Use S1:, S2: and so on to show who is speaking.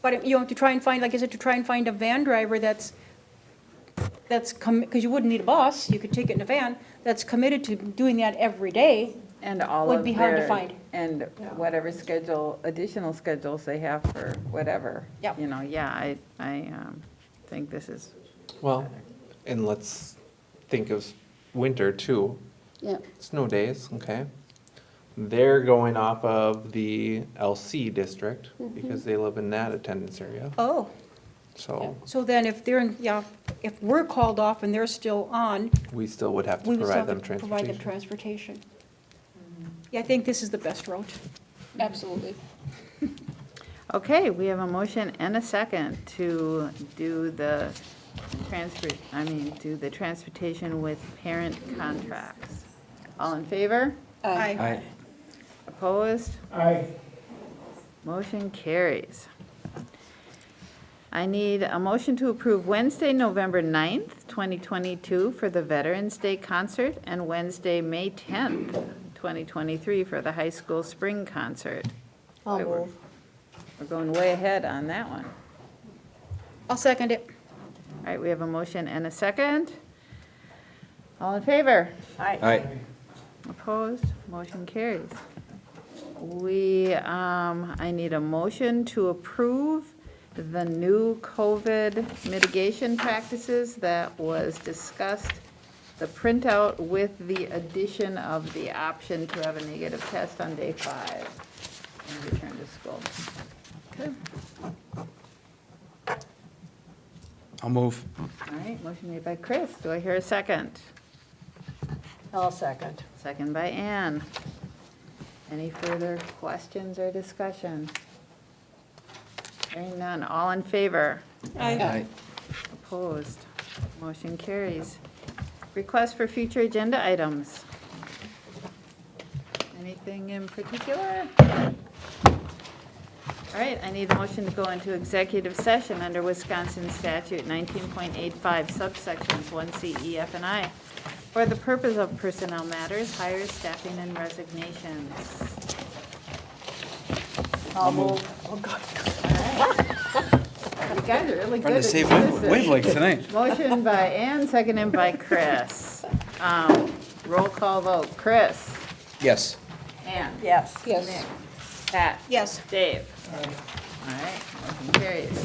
S1: But, you know, to try and find, like I said, to try and find a van driver that's, that's, because you wouldn't need a bus, you could take it in a van, that's committed to doing that every day.
S2: And all of
S1: Would be hard to
S2: their-
S1: find.
S2: And whatever schedule, additional schedules they have for whatever.
S1: Yep.
S2: You know, yeah, I, I um, think this is,
S3: Well, and let's think of winter too.
S4: Yeah,
S3: Snow days, okay? They're going off of the LC district because they live in that attendance area.
S1: Oh.
S3: So
S1: So then if they're, in yeah, if we're called off and they're still on,
S3: we still would have
S1: we
S3: to
S1: would still
S3: provide
S1: have
S3: them
S1: to provide them
S3: transportation.
S1: transportation. Yeah, I think this is the best route.
S4: absolutely.
S2: okay, we have a motion and a second to do the transfer, I mean, do the transportation with parent contracts. All in favor?
S4: Aye.
S3: Um,
S2: Opposed?
S5: Aye.
S2: Motion carries. I need a motion to approve Wednesday, November 9th, 2022 for the Veterans Day Concert and Wednesday, May 10th, 2023 for the High School Spring Concert.
S4: I'll
S2: Wait, we're-
S4: move.
S2: We're going way ahead on that one.
S1: I'll second it.
S2: All right, we have a motion and a second. All in favor?
S6: Aye.
S2: Opposed? Motion carries. We, um, I need a motion to approve the new COVID mitigation practices that was discussed, the printout with the addition of the option to have a negative test on day five and return to school.
S6: I'll move.
S2: All right, motion made by Chris. Do I hear a second?
S4: I'll second.
S2: Second by Ann. Any further questions or discussion? Hearing none, all in favor?
S6: Aye.
S2: Opposed? Motion carries. Request for future agenda items. Anything in particular? All right, I need a motion to go into executive session under Wisconsin statute 19.85 subsections 1C, E, F, and I for the purpose of personnel matters, hires, staffing, and resignations.
S4: I'll move.
S2: You guys are really good
S6: Trying
S2: at
S6: to save
S2: this.
S6: wavelength tonight.
S2: Motion by Ann, seconded by Chris. Um, Roll call vote, Chris.
S6: Yes.
S2: Ann.
S4: Yes. Yes.
S2: Pat.
S1: Yes.
S2: Dave. All right, motion carries.